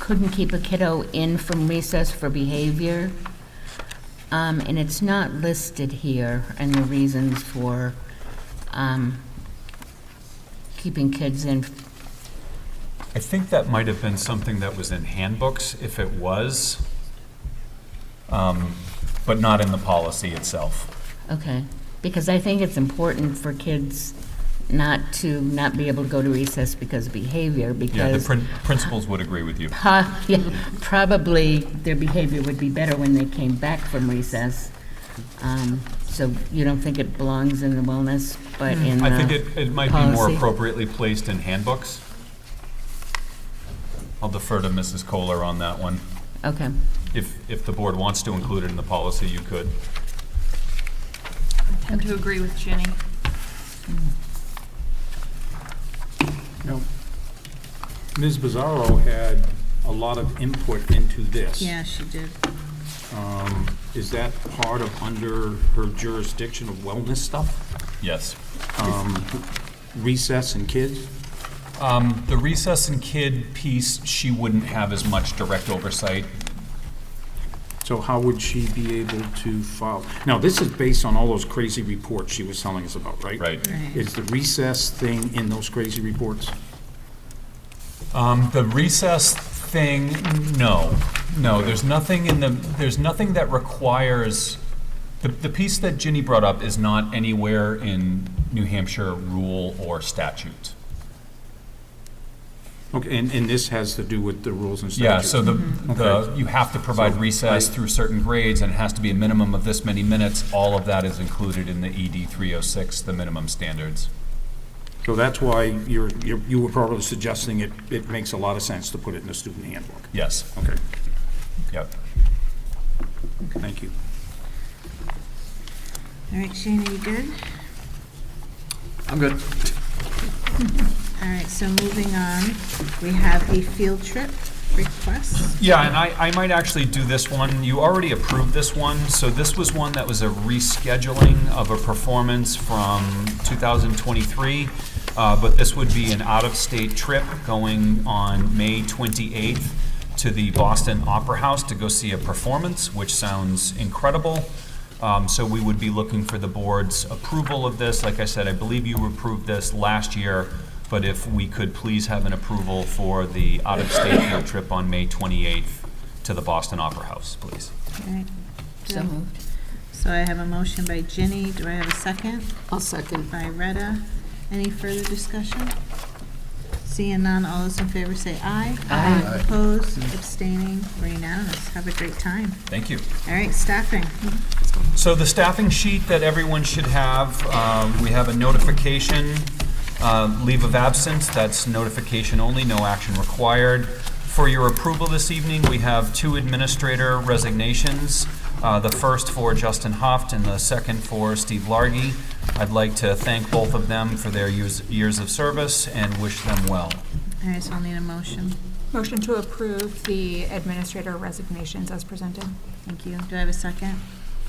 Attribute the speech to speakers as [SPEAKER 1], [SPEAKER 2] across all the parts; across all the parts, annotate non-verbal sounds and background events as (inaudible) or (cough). [SPEAKER 1] couldn't keep a kiddo in from recess for behavior. Um, and it's not listed here, and the reasons for, um, keeping kids in.
[SPEAKER 2] I think that might have been something that was in handbooks, if it was, um, but not in the policy itself.
[SPEAKER 1] Okay, because I think it's important for kids not to, not be able to go to recess because of behavior,
[SPEAKER 2] Yeah, the
[SPEAKER 1] because (laughs)
[SPEAKER 2] prin- principals would agree with you.
[SPEAKER 1] po- yeah, probably their behavior would be better when they came back from recess. Um, So you don't think it belongs in the wellness, but in the...
[SPEAKER 2] Hmm. I think it, it might be more
[SPEAKER 1] policy.
[SPEAKER 2] appropriately placed in handbooks. I'll defer to Mrs. Kohler on that one.
[SPEAKER 1] Okay,
[SPEAKER 2] If, if the board wants to include it in the policy, you could.
[SPEAKER 3] I tend to agree with Ginny.
[SPEAKER 4] Now, Ms. Bizarro had a lot of input into this.
[SPEAKER 5] Yeah, she did.
[SPEAKER 4] Um, Is that part of under her jurisdiction of wellness stuff?
[SPEAKER 2] Yes.
[SPEAKER 4] Um, Recess and kids?
[SPEAKER 2] Um, The recess and kid piece, she wouldn't have as much direct oversight.
[SPEAKER 4] So how would she be able to follow? Now, this is based on all those crazy reports she was telling us about, right?
[SPEAKER 2] Right.
[SPEAKER 4] Is the recess thing in those crazy reports?
[SPEAKER 2] Um, the recess thing, no, no, there's nothing in the, there's nothing that requires, the, the piece that Ginny brought up is not anywhere in New Hampshire rule or statute.
[SPEAKER 4] Okay, and, and this has to do with the rules and statutes?
[SPEAKER 2] Yeah, so the, the,
[SPEAKER 4] Okay.
[SPEAKER 2] you have to provide
[SPEAKER 4] So,
[SPEAKER 2] recess
[SPEAKER 4] I-
[SPEAKER 2] through certain grades, and it has to be a minimum of this many minutes. All of that is included in the ED three oh six, the minimum standards.
[SPEAKER 4] So that's why you're, you're- you were probably suggesting it, it makes a lot of sense to put it in the student handbook.
[SPEAKER 2] Yes,
[SPEAKER 4] Okay,
[SPEAKER 2] yep.
[SPEAKER 4] thank you.
[SPEAKER 5] All right, Shane, are you good?
[SPEAKER 6] I'm good.
[SPEAKER 5] All right, so moving on, we have a field trip request.
[SPEAKER 2] Yeah, and I, I might actually do this one. You already approved this one, so this was one that was a rescheduling of a performance from 2023, uh, but this would be an out-of-state trip going on May 28th to the Boston Opera House to go see a performance, which sounds incredible. Um, So we would be looking for the board's approval of this. Like I said, I believe you approved this last year, but if we could please have an approval for the out-of-state field trip on May 28th to the Boston Opera House, please.
[SPEAKER 5] All right,
[SPEAKER 1] so moved.
[SPEAKER 5] So I have a motion by Ginny. Do I have a second?
[SPEAKER 6] I'll second.
[SPEAKER 5] By Retta. Any further discussion? Seeing none, all those in favor say aye. Aye. Opposed, abstaining, we're unanimous. Have a great time.
[SPEAKER 2] Thank you.
[SPEAKER 5] All right, staffing.
[SPEAKER 2] So the staffing sheet that everyone should have, um, we have a notification, uh, leave of absence, that's notification only, no action required. For your approval this evening, we have two administrator resignations, uh, the first for Justin Hoft and the second for Steve Largy. I'd like to thank both of them for their years years of service and wish them well.
[SPEAKER 5] All right, so I'll need a motion.
[SPEAKER 3] Motion to approve the administrator resignations as presented.
[SPEAKER 5] Thank you. Do I have a second?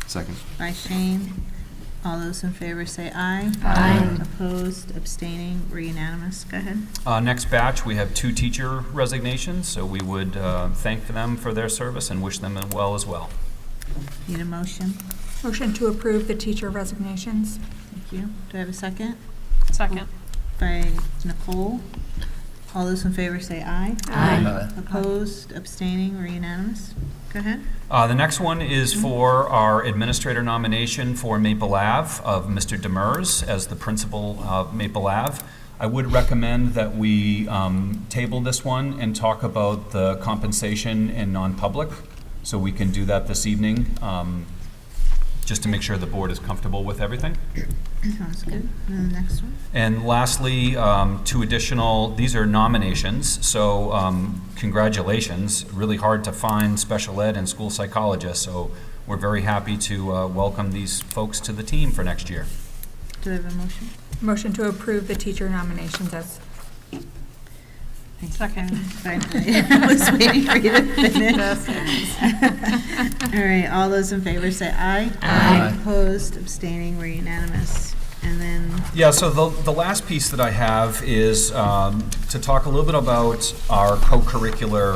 [SPEAKER 6] Second.
[SPEAKER 5] By Shane. All those in favor say aye.
[SPEAKER 1] Aye.
[SPEAKER 5] Opposed, abstaining, we're unanimous. Go ahead.
[SPEAKER 2] Uh, Next batch, we have two teacher resignations, so we would uh, thank them for their service and wish them well as well.
[SPEAKER 5] Need a motion?
[SPEAKER 3] Motion to approve the teacher resignations.
[SPEAKER 5] Thank you. Do I have a second?
[SPEAKER 3] Second.
[SPEAKER 5] By Nicole. All those in favor say aye. Opposed, abstaining, we're unanimous. Go ahead. (clears throat)
[SPEAKER 2] Uh, The next one is for our administrator nomination for Maple Ave of Mr. Demers as the principal of Maple Ave. I would recommend that we um, table this one and talk about the compensation in non-public, so we can do that this evening, um, just to make sure the board is comfortable with everything.
[SPEAKER 5] Sounds good. And the next one.
[SPEAKER 2] And lastly, um, two additional, these are nominations, so um, congratulations. Really hard to find special ed and school psychologists, so we're very happy to uh, welcome these folks to the team for next year.
[SPEAKER 5] Do I have a motion?
[SPEAKER 3] Motion to approve the teacher nominations as.
[SPEAKER 5] Second. (laughs) I was waiting for you to (laughs) finish. All right, all those in favor say aye.
[SPEAKER 1] Aye.
[SPEAKER 5] Opposed, abstaining, we're unanimous. and then
[SPEAKER 2] Yeah, so the, the last piece that I have is um, to talk a little bit about our co-curricular